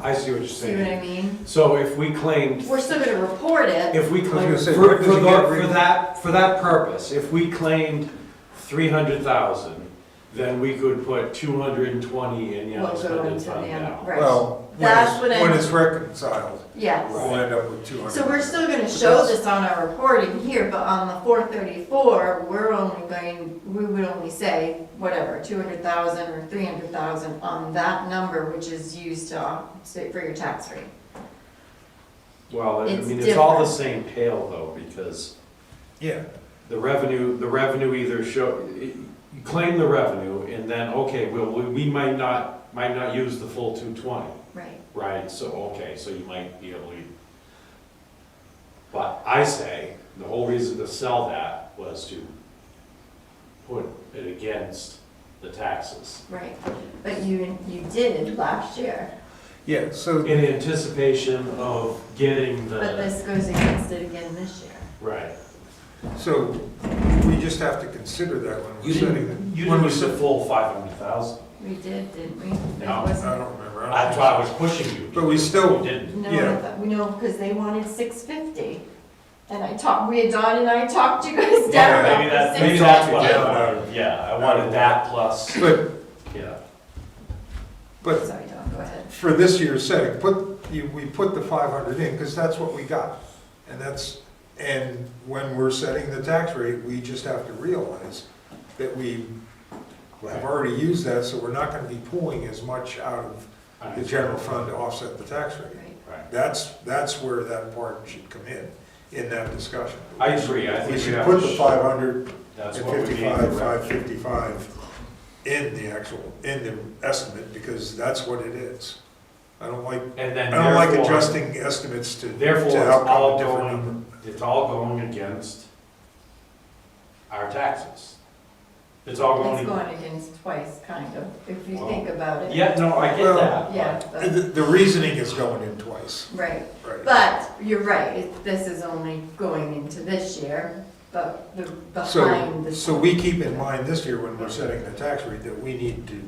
I see what you're See what I saying. mean? So if we claimed, We're still gonna report it. if we I claimed, was for, gonna say, where for does it get the- re- for that, for that purpose, if we claimed three hundred thousand, then we could put two hundred and twenty in We'll Yellow's go hundred into the fund end, now. right. Well, when That's it's, what I- when it's reconciled, Yes. we'll end up with two hundred. So we're still gonna show this on our reporting here, but on the four thirty-four, we're only going, we would only say, whatever, two hundred thousand or three hundred thousand on that number, which is used to, offset for your tax rate. Well, I It's mean, it's all the different. same tale though, because Yeah, the revenue, the revenue either show, you claim the revenue and then, okay, well, we- we might not, might not use the full two twenty. Right. Right, so, okay, so you might be able to. But I say, the whole reason to sell that was to put it against the taxes. Right, but you, you did last year, yeah, so, In anticipation of getting but the, this goes against it again this year. right. so we just have to consider that when You we're setting it. didn't, you didn't When we use the set, full five hundred thousand. We did, didn't we? No. It I wasn't- don't remember. I don't That's why I was pushing you. But we still- You didn't. No, Yeah. I thought- we know, because they wanted six fifty. And I talked, we had Don and I talked you guys down Yeah, about Maybe the that's, six maybe fifty. that's what I Yeah. wanted, yeah, I wanted that plus, But, yeah. but Sorry, Don, go ahead. for this year's setting, put, you- we put the five hundred in, because that's what we got. And that's, and when we're setting the tax rate, we just have to realize that we have already used that, so we're not gonna be pulling as much out of the general fund to offset the tax rate. Right. Right. That's, that's where that part should come in, in that discussion. I agree, I think We we should have put to. the sh- five hundred and That's what we need. fifty-five, five fifty-five in the actual, in the estimate, because that's what it is. I don't like And then I don't like therefore, adjusting estimates to, to therefore it's outcome a all different number. going, it's all going against our taxes. It's all going, It's going against twice, kind of, if you Well, think about it. yeah, no, I get Well- that. Yeah, The, but, the reasoning is going in twice, right. right? But you're right, it- this is only going into this year, but the behind So, the. so we keep in mind this year when we're setting the tax rate that we need to,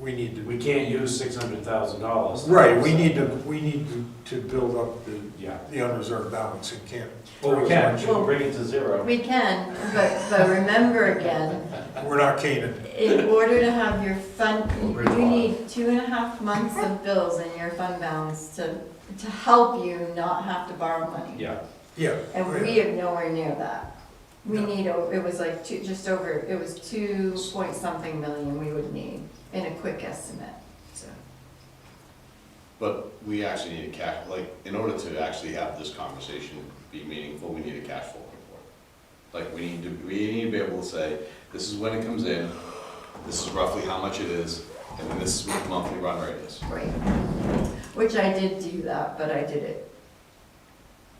we need We to, can't use six hundred thousand dollars. right, we need to, we need to, to build up the, Yeah, the unreserved balance and can't. well, we can, we Well- can bring it to zero. We can, but, but remember again, We're not Canaan. In order to have your fund, Over the you need two and a half months of bills in your fund balance to, to help you not have to borrow money. Yeah, Yeah. And right. we are nowhere near that. We No. need, o- it was like two, just over, it was two point something million we would need in a quick estimate, so. But we actually need a cash, like, in order to actually have this conversation be meaningful, we need a cash flow report. Like, we need to, we need to be able to say, this is when it comes in, this is roughly how much it is, and then this is what the monthly run rate is. Right. Which I did do that, but I did it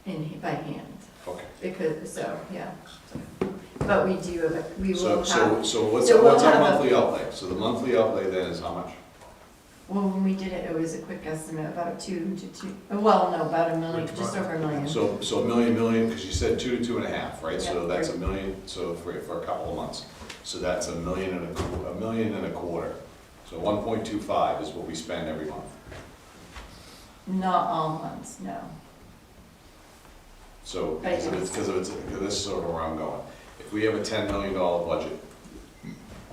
in, by hand, Okay. because, so, yeah. so. But we do, have a- we will So, have. so, so what's, so we'll what's our have a- monthly outlay? So the monthly outlay then is how much? Well, when we did it, it was a quick estimate, about two to two, well, no, about a million, Which just one? over a million. So, so a million, million, because you said two to two and a half, right? So Yeah. that's a million, so for, for a couple of months. So that's a million and a, qu- a million and a quarter. So one point two five is what we spend every month. Not all months, no. So, Right. because of it's, because of it's, 'cause this is sort of where I'm going. If we have a ten million dollar budget,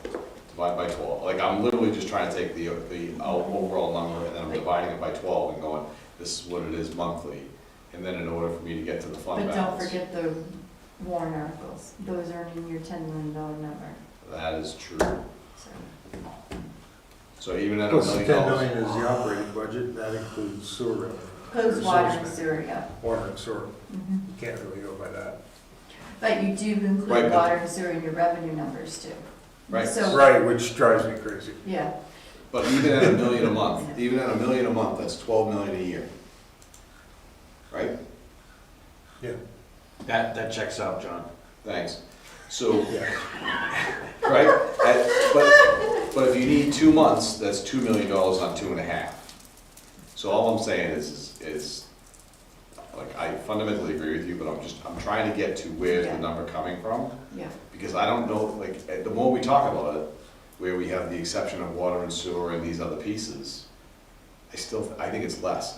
divide by twelve, like, I'm literally just trying to take the, the out- overall number, and then I'm dividing it by twelve and going, this is what it is monthly, and then in order for me to get to the fund But don't balance. forget the warrant articles, those aren't in your ten million dollar number, That is true. so. So even at a Plus the million ten dollars, million is the operating budget, and that includes sewer revenue. Close There's water and always been- sewer, yeah. Water and sewer, Mhm. you can't really go by that. But you do Right, include but- water and sewer in your revenue numbers too. Right. So, Right, which drives me crazy. yeah, but even at a million a month, even at a million a month, that's twelve million a year. Right? that, that checks out, John. Thanks. So, Yeah. right, at- but, but if you need two months, that's two million dollars on two and a half. So all I'm saying is, is, is, like, I fundamentally agree with you, but I'm just, I'm trying to get to where's Yeah. the number coming from, yeah, because I don't know, like, eh, the more we talk about it, where we have the exception of water and sewer and these other pieces, I still, I think it's less.